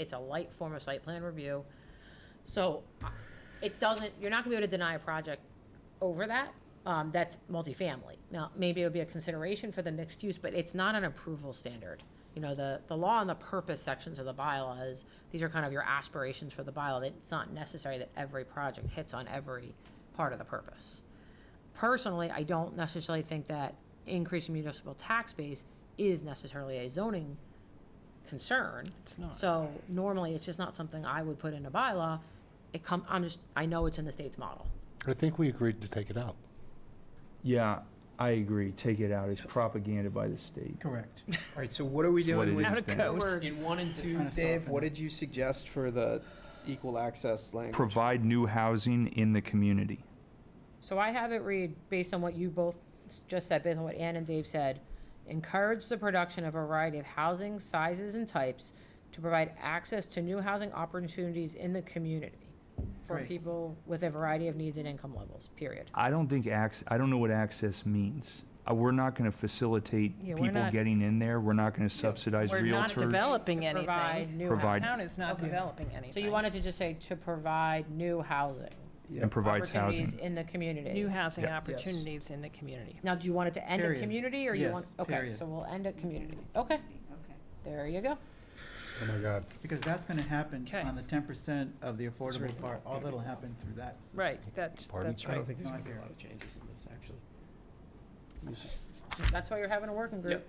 It's a light form of site plan review. So uh, it doesn't, you're not gonna be able to deny a project over that, um, that's multifamily. Now, maybe it would be a consideration for the mixed use, but it's not an approval standard. You know, the, the law and the purpose sections of the bylaws, these are kind of your aspirations for the bylaw, that it's not necessary that every project hits on every part of the purpose. Personally, I don't necessarily think that increasing municipal tax base is necessarily a zoning concern. It's not. So normally, it's just not something I would put in a bylaw. It come, I'm just, I know it's in the state's model. I think we agreed to take it out. Yeah, I agree. Take it out. It's propaganda by the state. Correct. All right, so what are we what doing it with is. in one and two? trying to Dave, soften what it. did you suggest for the equal access language? Provide new housing in the community. So I have it read, based on what you both s- just said, based on what Ann and Dave said, encourage the production of a variety of housing sizes and types to provide access to new housing opportunities in the community for Great. people with a variety of needs and income levels, period. I don't think acc, I don't know what access means. Uh, We're not going to facilitate Yeah, we're people not- getting in there. We're not going to subsidize We're not realtors. developing To anything. provide new The Provide- town is not Okay. developing anything. So you wanted to just say to provide new housing. And provides opportunities housing. In the community. New housing Yeah. opportunities in the community. Now, do you want it to end at Period. community or you want? Yes, Okay, period. so we'll end at community. Okay, Okay. there you go. Oh, my God. Because that's gonna happen Okay. on the ten percent of the affordable Sorry. part, all that'll happen through that. system. Right, that's, Pardon? that's I don't right. think there's No, I gonna be a hear lot it. of changes in this, actually. It's just- That's why you're having a working group. Yep.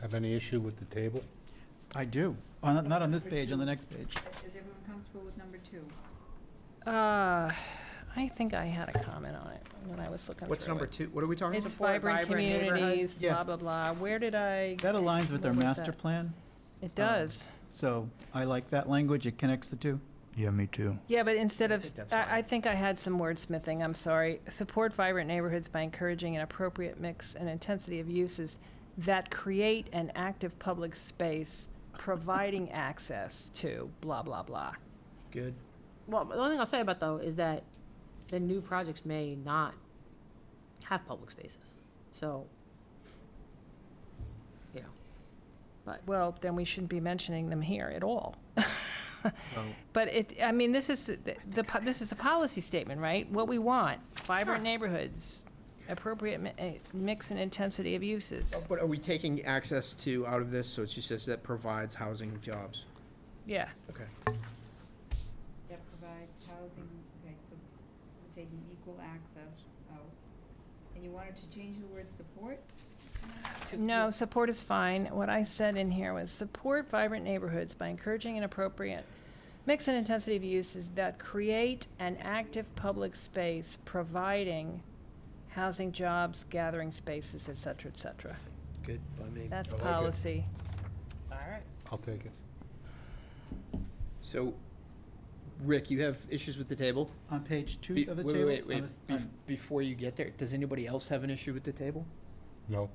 Have any issue with the table? I do. On, the- not on this page, on the next page. Is everyone comfortable with number two? Uh, I think I had a comment on it when I was looking through it. What's number two? What are we talking about? It's Support vibrant vibrant neighborhoods. communities, blah, Yes. blah, blah. Where did I, That aligns with our What was master that? plan, it does. Um, so I like that language. It connects the two. Yeah, me too. Yeah, but instead I of, think that's fine. I, I think I had some wordsmithing, I'm sorry. Support vibrant neighborhoods by encouraging an appropriate mix and intensity of uses that create an active public space, providing access to blah, blah, blah. Good. Well, the only thing I'll say about though is that the new projects may not have public spaces, so, you know, Well, then we shouldn't be mentioning them here at all. But it, I mean, this is, the- the, po- this is a policy statement, right? What we want, vibrant neighborhoods, appropriate mi- eh, mix and intensity of uses. Oh, But are we taking access to out of this, so it just says that provides housing jobs? Yeah, Okay. That provides housing, okay, so we're taking equal access out. And you wanted to change the word support? No, support is fine. What I said in here was support vibrant neighborhoods by encouraging an appropriate mix and intensity of uses that create an active public space, providing housing, jobs, gathering spaces, et cetera, et cetera. Good by me. That's I like it. policy. all right. I'll take it. So, Rick, you have issues with the table? On page two Be- of the wait, table. Wait, on wait, this- wait. Bef- on- Before you get there, does anybody else have an issue with the table? No.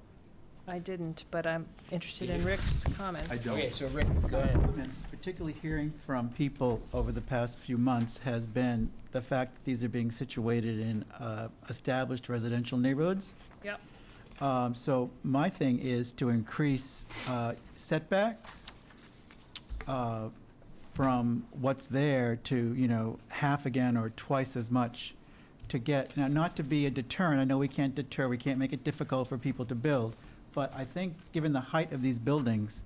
I didn't, but I'm interested in Rick's comments. I don't. Okay, so Rick, go ahead. comments, particularly hearing from people over the past few months, has been the fact that these are being situated in uh, established residential neighborhoods. Yep. Um, So my thing is to increase uh, setbacks uh, from what's there to, you know, half again or twice as much to get, now, not to be a deterrent, I know we can't deter, we can't make it difficult for people to build, but I think, given the height of these buildings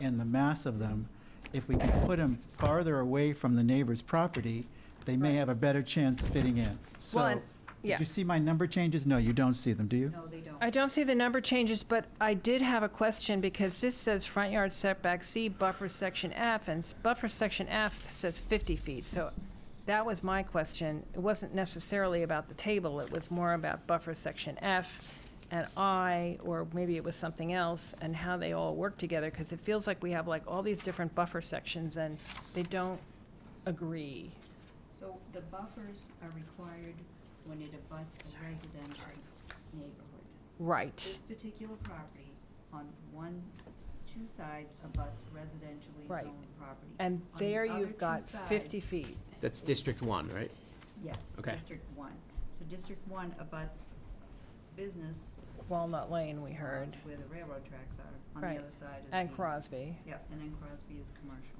and the mass of them, if we can put them farther away from the neighbor's property, they may have a better chance of fitting in. Well, So, and- yeah. did you see my number changes? No, you don't see them, do you? No, they don't. I don't see the number changes, but I did have a question because this says front yard setback C buffer section F and s- buffer section F says 50 feet. So that was my question. It wasn't necessarily about the table. It was more about buffer section F and I, or maybe it was something else and how they all work together. Because it feels like we have like all these different buffer sections and they don't agree. So the buffers are required when it abuts a residential neighborhood. Right, This particular property on one, two sides abuts residentially Right. zoned property. and On the there other two you've got sides- 50 feet. That's District One, right? Yes, Okay. District One. So District One abuts business Walnut Lane, we uh, heard, Where the railroad tracks are, on Right. the other side is. and the- Crosby. Yep, and then Crosby is commercial.